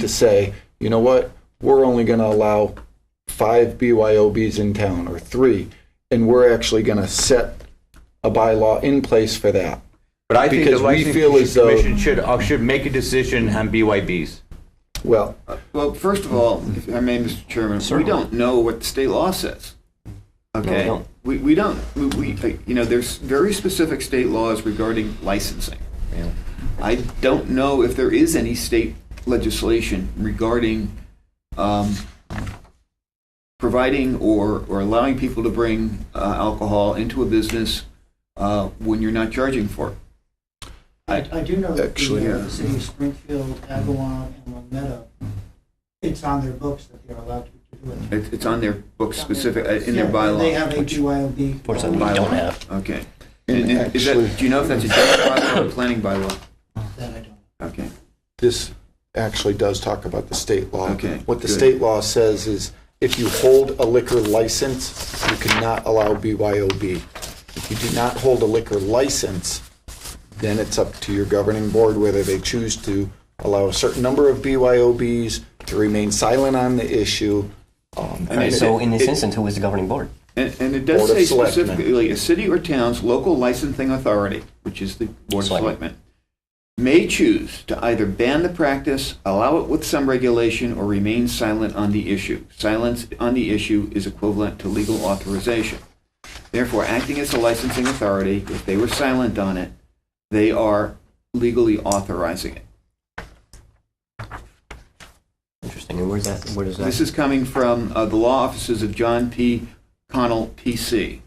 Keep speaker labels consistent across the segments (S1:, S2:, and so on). S1: to say, you know what, we're only going to allow five BYOBs in town or three, and we're actually going to set a bylaw in place for that.
S2: But I think the
S1: Because we feel as
S2: licensing
S1: though-
S2: commission should, uh, should make a decision on BYBs.
S1: Well,
S3: Uh, Well, first of all, if I may, Mr. Chairman, we don't know what the state law says. Okay,
S2: don't.
S3: we, we don't. We, we you know there's very specific state laws regarding licensing. I don't know if there is any state legislation regarding um, providing or, or allowing people to bring uh, alcohol into a business uh, when you're not charging for it.
S4: I, I do know that
S1: Actually,
S4: the, uh,
S1: yeah.
S4: the city of Springfield, Agawam, and Long Meadow, it's on their books that they're allowed to do it.
S3: It's, it's on their book specific, uh, in
S4: Yeah,
S3: their bylaw.
S4: They have a
S3: which-
S4: BYOB.
S5: Or something we don't have.
S3: Okay.
S1: And
S3: And and is
S1: actually-
S3: that, do you know if that's a general bylaw or a planning bylaw?
S4: That I don't.
S3: Okay.
S1: this actually does talk about the state law.
S3: Okay,
S1: What the
S3: good.
S1: state law says is if you hold a liquor license, you cannot allow BYOB. If you do not hold a liquor license, then it's up to your governing board whether they choose to allow a certain number of BYOBs, to remain silent on the issue. Um,
S3: I mean,
S5: Right, so
S3: it-
S5: in this
S3: it-
S5: instance, who is the governing board?
S3: And, and it does
S1: Board of
S3: say
S1: Selectmen.
S3: specifically, a city or town's local licensing authority, which is the Board of
S5: Selectmen.
S3: Selectmen, may choose to either ban the practice, allow it with some regulation, or remain silent on the issue. Silence on the issue is equivalent to legal authorization. Therefore, acting as a licensing authority, if they were silent on it, they are legally authorizing it.
S5: Interesting, and where's that, where does
S3: This
S5: that?
S3: is coming from uh, the law offices of John P. Connell, PC.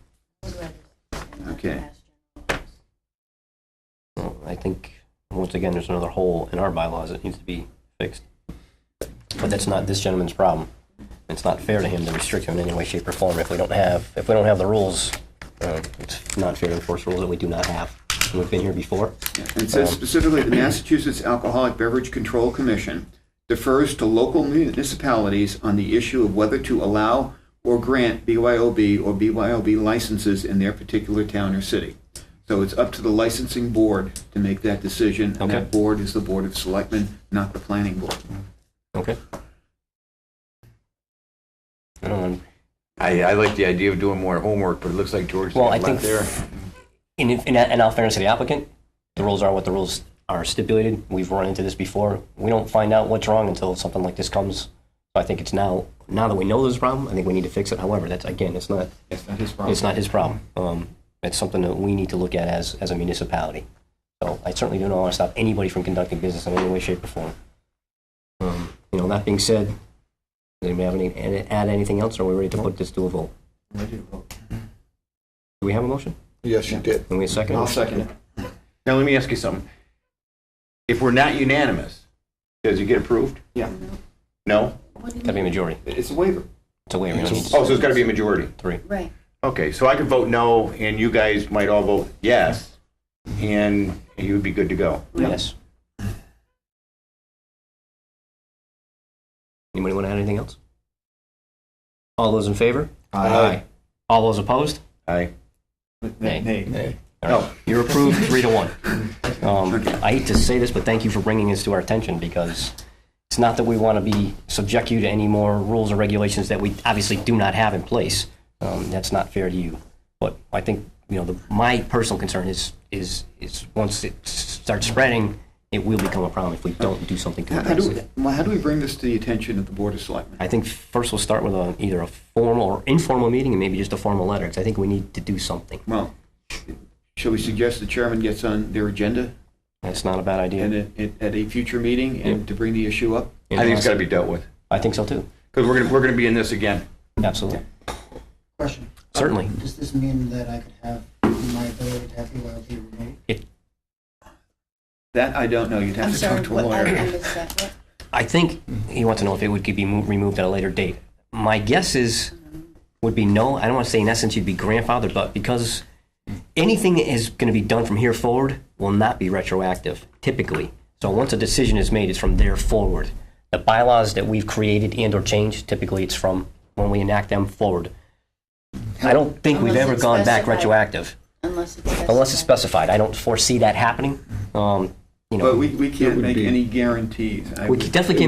S3: Okay.
S5: Well, I think, once again, there's another hole in our bylaws that needs to be fixed. But that's not this gentleman's problem. It's not fair to him to restrict him in any way, shape, or form if we don't have, if we don't have the rules. uh, It's not fair to enforce rules that we do not have. We've been here before.
S3: And it says specifically, the Massachusetts Alcoholic Beverage Control Commission defers to local municipalities on the issue of whether to allow or grant BYOB or BYOB licenses in their particular town or city. So it's up to the licensing board to make that decision. And
S5: Okay.
S3: that board is the Board of Selectmen, not the planning board.
S5: Okay. I don't want-
S2: I, I like the idea of doing more homework, but it looks like George
S5: Well, I
S2: got left
S5: think-
S2: there.
S5: In, in, in all fairness to the applicant, the rules are what the rules are stipulated. We've run into this before. We don't find out what's wrong until something like this comes. So I think it's now, now that we know there's a problem, I think we need to fix it. However, that's, again, it's not,
S3: That's not his problem.
S5: it's not his problem. Um, it's something that we need to look at as, as a municipality. So I certainly don't want to stop anybody from conducting business in any way, shape, or form. Um, you know, that being said, does anybody have any, add- add anything else? Or are we ready to put this to a vote? Do we have a motion?
S1: Yes, you did.
S5: Can we have a second?
S3: I'll second it.
S2: Now, let me ask you something. If we're not unanimous, does it get approved?
S3: Yeah.
S2: No?
S5: Gotta be a majority.
S3: It's a waiver.
S5: It's a waiver. you don't need to-
S2: Oh, so it's got to be a majority.
S5: Three.
S6: Right.
S2: Okay, so I could vote no, and you guys might all vote yes, and you would be good to go.
S5: Yes. Anybody want to add anything else? All those in favor? All those opposed?
S2: Aye.
S5: Nay.
S3: Nay.
S5: All right. You're approved, three to one. Um, I hate to say this, but thank you for bringing this to our attention because it's not that we want to be, subject you to any more rules or regulations that we obviously do not have in place. Um, That's not fair to you. But I think, you know, the- my personal concern is, is, is once it starts spreading, it will become a problem if we don't do something to
S3: How how
S5: address
S3: do,
S5: it.
S3: we- well, how do we bring this to the attention of the Board of Selectmen?
S5: I think first we'll start with a, either a formal or informal meeting and maybe just a formal letter, because I think we need to do something.
S3: Well, shall we suggest the chairman gets on their agenda
S5: That's not a bad
S3: and
S5: idea.
S3: at, at a future meeting and to bring the issue up?
S2: I think it's got to be dealt with,
S5: I think so too.
S2: because we're going to, we're going to be in this again.
S5: Absolutely.
S4: Question.
S5: Certainly.
S4: Does this mean that I could have, my ability to have BYOB removed?
S3: That I don't know. You'd have
S6: I'm
S3: to
S6: sorry,
S3: talk to a
S6: what, I I
S3: lawyer.
S6: missed that. What?
S5: I think he wants to know if it would be mo- removed at a later date. My guess is, would be no. I don't want to say in essence you'd be grandfathered, but because anything that is going to be done from here forward will not be retroactive, typically. So once a decision is made, it's from there forward. The bylaws that we've created and or changed, typically it's from when we enact them forward. I don't think we've
S6: Unless
S5: ever
S6: it's
S5: gone back
S6: specified.
S5: retroactive,
S6: Unless it's specified.
S5: unless it's specified. I don't foresee that happening. Um, you know,
S3: But we, we
S1: It
S3: can't
S1: would
S3: make
S1: be-
S3: any guarantees. I
S5: we
S3: would-
S5: definitely can't